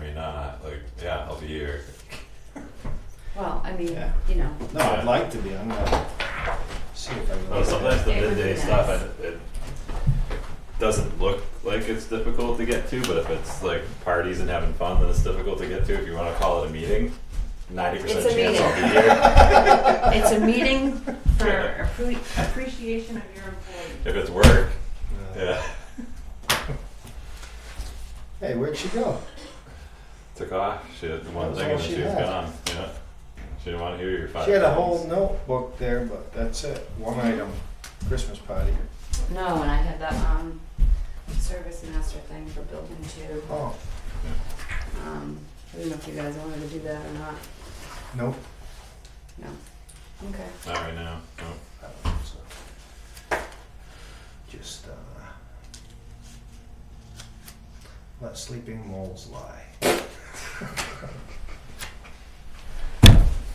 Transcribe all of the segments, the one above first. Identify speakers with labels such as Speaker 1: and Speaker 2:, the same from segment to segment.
Speaker 1: may not, like, yeah, I'll be here.
Speaker 2: Well, I mean,
Speaker 3: Yeah.
Speaker 2: you know,
Speaker 3: No, I'd like to be, I'm gonna see if I can.
Speaker 1: Well, sometimes the
Speaker 2: It would be
Speaker 1: midday
Speaker 2: nice.
Speaker 1: stuff, it, it doesn't look like it's difficult to get to, but if it's like parties and having fun, then it's difficult to get to. If you wanna call it a meeting, ninety percent
Speaker 2: It's a
Speaker 1: chance I'll be
Speaker 2: meeting.
Speaker 1: here.
Speaker 2: it's a meeting for
Speaker 1: Yeah.
Speaker 2: appre- appreciation of your employee.
Speaker 1: If it's work,
Speaker 3: Uh,
Speaker 1: yeah,
Speaker 3: Hey, where'd she go?
Speaker 1: took off, she had one
Speaker 3: That's
Speaker 1: thing
Speaker 3: all
Speaker 1: and then
Speaker 3: she
Speaker 1: she was
Speaker 3: had.
Speaker 1: gone, yeah. She didn't wanna hear your five
Speaker 3: She had a
Speaker 1: things.
Speaker 3: whole notebook there, but that's it, one item, Christmas party.
Speaker 2: No, and I had that, um, service master thing for building two.
Speaker 3: Oh,
Speaker 2: Um, I don't know if you guys wanted to do that or not.
Speaker 3: nope.
Speaker 2: No. Okay.
Speaker 1: Not right now, no.
Speaker 3: I don't think so. Just, uh, let sleeping moles lie.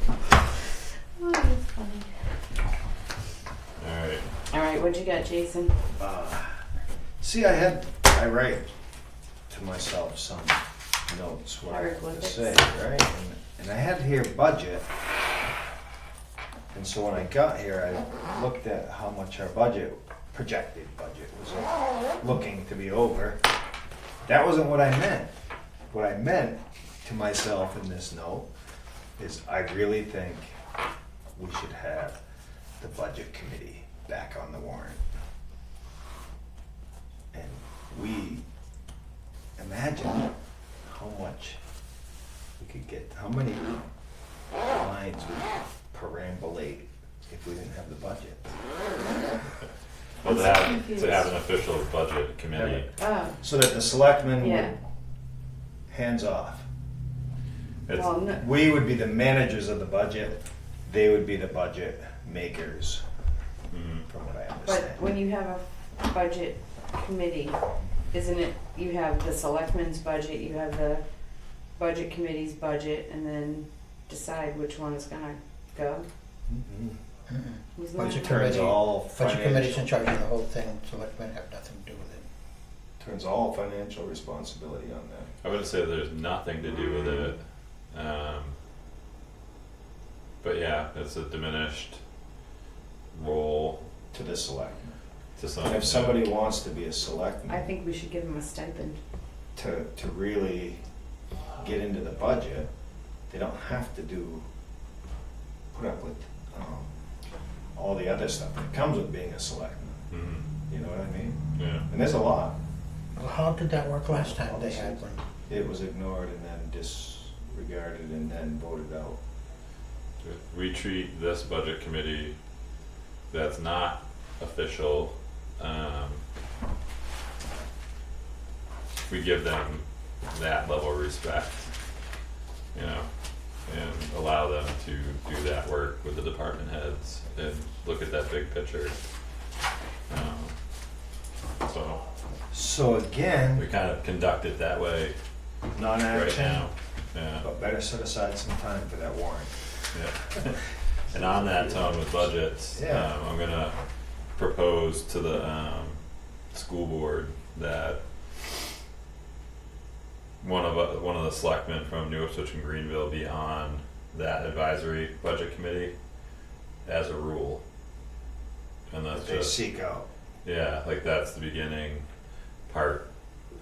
Speaker 2: Oh, that's funny.
Speaker 1: Alright,
Speaker 2: All right, what'd you get, Jason?
Speaker 3: Uh, See, I had, I write to myself some notes, what I have to
Speaker 2: Hieroglyphics.
Speaker 3: say, right? And- And I had here budget. And so when I got here, I looked at how much our budget, projected budget was uh, looking to be over. That wasn't what I meant. What I meant to myself in this note is I really think we should have the budget committee back on the warrant. And we imagine how much we could get, how many lines would perambulate if we didn't have the budget.
Speaker 1: well,
Speaker 2: I'm
Speaker 1: to
Speaker 2: so
Speaker 1: have,
Speaker 2: confused.
Speaker 1: to have an official budget committee,
Speaker 2: Oh,
Speaker 3: So that the selectmen
Speaker 2: yeah.
Speaker 3: would, hands off.
Speaker 1: it's,
Speaker 2: Well, no,
Speaker 3: We would be the managers of the budget, they would be the budget makers,
Speaker 1: mm,
Speaker 3: from what I
Speaker 2: but
Speaker 3: understand.
Speaker 2: when you have a budget committee, isn't it, you have the selectmen's budget, you have the budget committee's budget, and then decide which one is gonna go?
Speaker 3: Mhm.
Speaker 2: Who's not?
Speaker 4: Budget
Speaker 3: Turns
Speaker 4: committee,
Speaker 3: all
Speaker 4: budget committee's in
Speaker 3: financial,
Speaker 4: charge of the whole thing, selectmen have nothing to do with it.
Speaker 3: turns all financial responsibility on them.
Speaker 1: I wouldn't say there's nothing to do with it.
Speaker 3: Mm.
Speaker 1: Um, but yeah, it's a diminished role
Speaker 3: to the selectmen.
Speaker 1: to some
Speaker 3: And if
Speaker 1: extent.
Speaker 3: somebody wants to be a
Speaker 2: I
Speaker 3: selectman,
Speaker 2: think we should give them a stipend.
Speaker 3: to, to really get into the budget, they don't have to do, put up with, um, all the other stuff that comes with being a selectman,
Speaker 1: Mhm,
Speaker 3: you know what I mean?
Speaker 1: yeah.
Speaker 3: And there's a lot,
Speaker 4: Well, how did that work last time they had one?
Speaker 3: it was ignored and then disregarded and then voted out.
Speaker 1: We treat this budget committee that's not official, um. We give them that level of respect, you know, and allow them to do that work with the department heads and look at that big picture. Um, so
Speaker 3: So
Speaker 1: we
Speaker 3: again,
Speaker 1: kind of conduct it that way right
Speaker 3: non-action,
Speaker 1: now, yeah.
Speaker 3: but better set aside some time for that warrant.
Speaker 1: Yeah. And on that tone with budgets,
Speaker 3: Yeah.
Speaker 1: um, I'm gonna propose to the, um, school board that one of, uh, one of the selectmen from New Ipswich and Greenville be on that advisory budget committee as a rule. And that's
Speaker 3: that They
Speaker 1: just,
Speaker 3: seek out,
Speaker 1: yeah, like that's the beginning part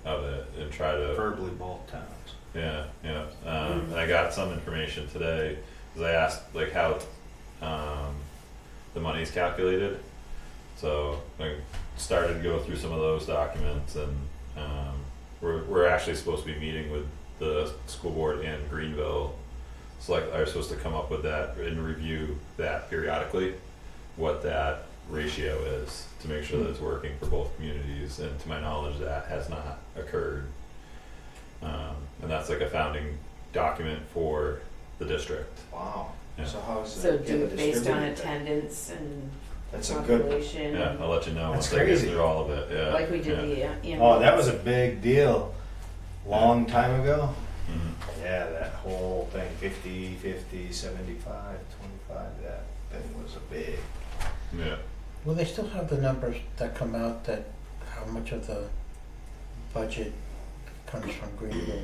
Speaker 1: of it and try to
Speaker 3: verbally both towns.
Speaker 1: yeah, yeah. Um, and I got some information today because I asked like how um, the money's calculated. So I started to go through some of those documents, and um, we're we're actually supposed to be meeting with the school board and Greenville. Select are supposed to come up with that and review that periodically, what that ratio is to make sure that it's working for both communities. And to my knowledge, that has not occurred. Um, and that's like a founding document for the district.
Speaker 3: Wow,
Speaker 1: Yeah.
Speaker 3: so how's that?
Speaker 2: So do it
Speaker 3: get
Speaker 2: based on
Speaker 3: distributed then?
Speaker 2: attendance and
Speaker 3: That's a good
Speaker 2: population,
Speaker 1: Yeah, I'll let you know
Speaker 3: That's
Speaker 1: once I get
Speaker 3: crazy.
Speaker 1: through all of it. Yeah.
Speaker 2: like we did
Speaker 1: yeah.
Speaker 2: the uh, ambulance.
Speaker 3: Oh, that was a big deal. Long time ago?
Speaker 1: Mhm.
Speaker 3: Yeah, that whole thing, 50, 50, 75, 25, that thing was a big.
Speaker 1: Yeah.
Speaker 4: Well, they still have the numbers that come out that how much of the budget comes from Greenville